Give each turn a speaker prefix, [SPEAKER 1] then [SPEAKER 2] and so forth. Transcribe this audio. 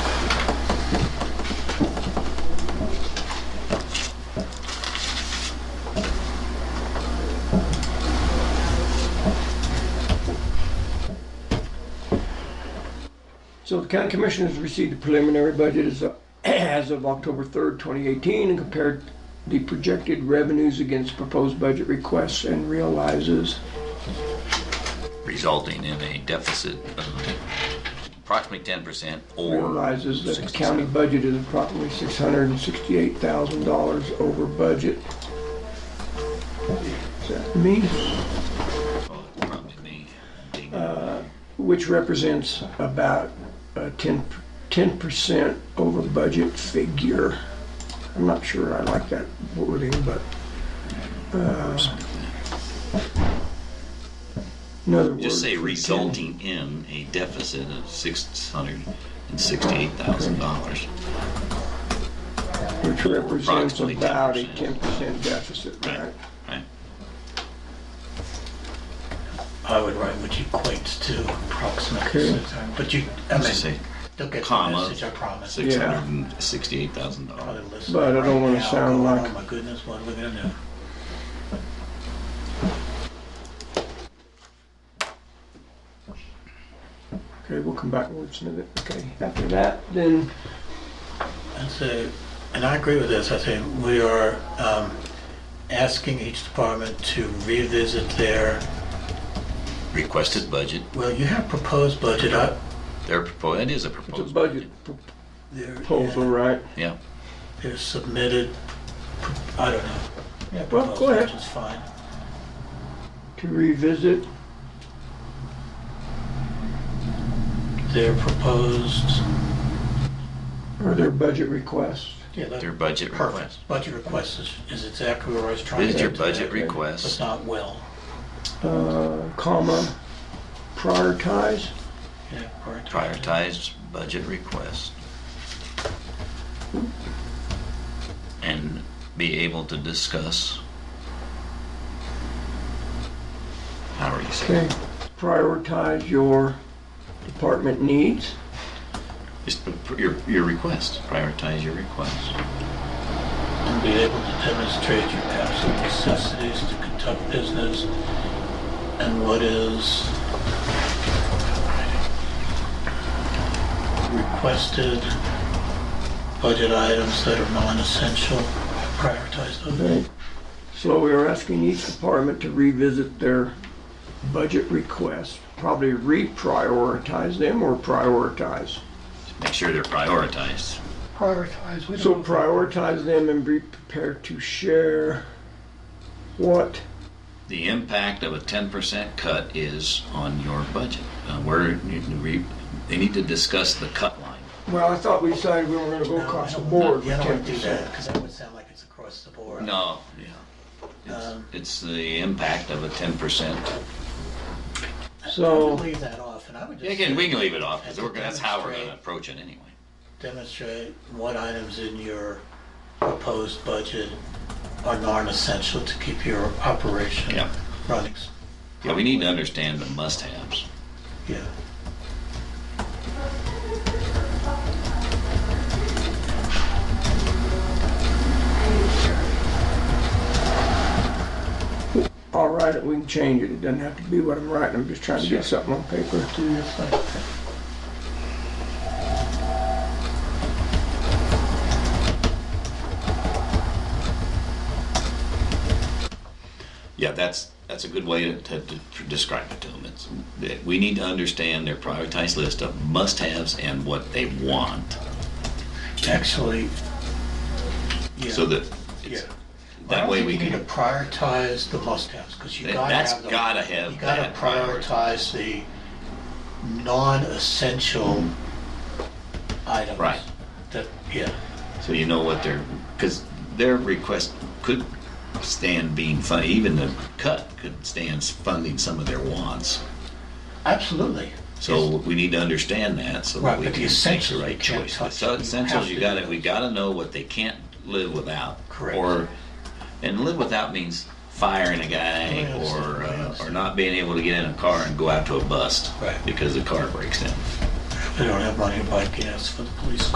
[SPEAKER 1] County Commissioners received the preliminary budget as of, as of October 3rd, 2018, and compared the projected revenues against proposed budget requests and realizes
[SPEAKER 2] resulting in a deficit of approximately ten percent or
[SPEAKER 1] realizes that the
[SPEAKER 2] 60.
[SPEAKER 1] county budget is approximately $668,000 over budget. Is that me?
[SPEAKER 2] well, uh, probably me.
[SPEAKER 1] Which represents about a 10, 10% over budget figure. I'm not sure I like that wording, but. uh, In other words.
[SPEAKER 2] Just say
[SPEAKER 1] for 10
[SPEAKER 2] resulting in a deficit of six hundred and sixty-eight thousand dollars.
[SPEAKER 1] Which represents
[SPEAKER 2] approximately
[SPEAKER 1] about a
[SPEAKER 2] 10%.
[SPEAKER 1] 10% deficit, right?
[SPEAKER 2] Right?
[SPEAKER 3] I would write which equates to approximately
[SPEAKER 1] Okay.
[SPEAKER 3] six hundred, but you, I
[SPEAKER 2] Just say
[SPEAKER 3] mean, they'll get the
[SPEAKER 2] comma,
[SPEAKER 3] message, I promise.
[SPEAKER 2] Six hundred and sixty-eight thousand dollars.
[SPEAKER 3] Probably listening
[SPEAKER 1] But I don't
[SPEAKER 3] right
[SPEAKER 1] wanna
[SPEAKER 3] now,
[SPEAKER 1] sound
[SPEAKER 3] going,
[SPEAKER 1] like-
[SPEAKER 3] Oh my goodness, what are we gonna do?
[SPEAKER 1] Okay, we'll come back and wordsmith it. Okay, after that, then,
[SPEAKER 3] And so, and I agree with this, I think we are, um, asking each department to revisit their,
[SPEAKER 2] Requested budget,
[SPEAKER 3] well, you have proposed budget, I,
[SPEAKER 2] their proposal, that is a
[SPEAKER 1] it's a
[SPEAKER 2] proposed
[SPEAKER 1] budget
[SPEAKER 2] budget.
[SPEAKER 3] their,
[SPEAKER 1] proposal, right?
[SPEAKER 2] Yeah,
[SPEAKER 3] their submitted, pro- I don't know. Yeah,
[SPEAKER 1] Well, go ahead.
[SPEAKER 3] Which is fine.
[SPEAKER 1] To revisit
[SPEAKER 3] Their proposed,
[SPEAKER 1] or their budget request.
[SPEAKER 3] yeah, that-
[SPEAKER 2] their budget request.
[SPEAKER 3] Perfect. Budget request is, is exactly where I was trying to.
[SPEAKER 2] This is your
[SPEAKER 3] get to
[SPEAKER 2] budget
[SPEAKER 3] that, But
[SPEAKER 2] request.
[SPEAKER 3] not will.
[SPEAKER 1] uh, comma, prioritize.
[SPEAKER 3] Yeah, prioritize.
[SPEAKER 2] prioritized budget request and be able to discuss how are you
[SPEAKER 1] Okay,
[SPEAKER 2] saying
[SPEAKER 1] prioritize your department needs.
[SPEAKER 2] just put your your request prioritize your request
[SPEAKER 3] And be able to demonstrate your absolute necessities to conduct business and what is requested budget items that are non-essential, prioritize those.
[SPEAKER 1] Okay. So we are asking each department to revisit their budget request, probably reprioritize them or prioritize.
[SPEAKER 2] make sure they're prioritized
[SPEAKER 3] Prioritize, we
[SPEAKER 1] So prioritize them and be prepared to share what
[SPEAKER 2] the impact of a 10% cut is on your budget uh, where you, re, they need to discuss the cut line
[SPEAKER 1] Well, I thought we decided we were gonna go
[SPEAKER 3] No,
[SPEAKER 1] across
[SPEAKER 3] I
[SPEAKER 1] the
[SPEAKER 3] don't-
[SPEAKER 1] board with
[SPEAKER 3] Yeah, I don't
[SPEAKER 1] ten
[SPEAKER 3] want to do that,
[SPEAKER 1] percent.
[SPEAKER 3] because that would sound like it's across the board.
[SPEAKER 2] no yeah it's,
[SPEAKER 3] Um,
[SPEAKER 2] it's the impact of a 10%
[SPEAKER 1] So-
[SPEAKER 3] I would leave that off, and I would just.
[SPEAKER 2] Again,
[SPEAKER 3] say
[SPEAKER 2] we can leave it off because
[SPEAKER 3] to
[SPEAKER 2] we're gonna, that's how we're gonna
[SPEAKER 3] demonstrate-
[SPEAKER 2] approach it anyway.
[SPEAKER 3] Demonstrate what items in your proposed budget are non-essential to keep your operation
[SPEAKER 2] Yeah.
[SPEAKER 3] running.
[SPEAKER 2] Yeah, we need to understand the must-haves.
[SPEAKER 3] Yeah.
[SPEAKER 1] I'll write it, we can change it, it doesn't have to be what I'm writing, I'm just trying to get something on paper.
[SPEAKER 3] Do your thing.
[SPEAKER 2] Yeah, that's, that's a good way to, to, to describe it to them. It's, that we need to understand their prioritized list of must-haves and what they want.
[SPEAKER 3] Actually, yeah.
[SPEAKER 2] So that,
[SPEAKER 3] Yeah.
[SPEAKER 2] it's, that way we
[SPEAKER 3] I
[SPEAKER 2] can,
[SPEAKER 3] don't think you need to prioritize the must-haves, because you
[SPEAKER 2] That-
[SPEAKER 3] gotta
[SPEAKER 2] that's
[SPEAKER 3] have the.
[SPEAKER 2] gotta have
[SPEAKER 3] You gotta
[SPEAKER 2] that priority.
[SPEAKER 3] prioritize the non-essential items.
[SPEAKER 2] Right.
[SPEAKER 3] That, yeah,
[SPEAKER 2] so you know what their, because their request could stand being fun, even the cut could stand funding some of their wants.
[SPEAKER 3] absolutely.
[SPEAKER 2] So we need to understand that so that
[SPEAKER 3] Right,
[SPEAKER 2] we
[SPEAKER 3] but the
[SPEAKER 2] can make the
[SPEAKER 3] essentials
[SPEAKER 2] right
[SPEAKER 3] you can't
[SPEAKER 2] choice.
[SPEAKER 3] touch.
[SPEAKER 2] So
[SPEAKER 3] You
[SPEAKER 2] essentials,
[SPEAKER 3] have
[SPEAKER 2] you
[SPEAKER 3] to
[SPEAKER 2] gotta,
[SPEAKER 3] do
[SPEAKER 2] we gotta know what they can't live without.
[SPEAKER 3] Correct.
[SPEAKER 2] Or, and live without means firing a guy
[SPEAKER 3] I understand,
[SPEAKER 2] or, uh,
[SPEAKER 3] I
[SPEAKER 2] or
[SPEAKER 3] understand.
[SPEAKER 2] not being able to get in a car and go out to a bust.
[SPEAKER 3] Right.
[SPEAKER 2] Because the car breaks down.
[SPEAKER 3] They don't have money to buy gas for the police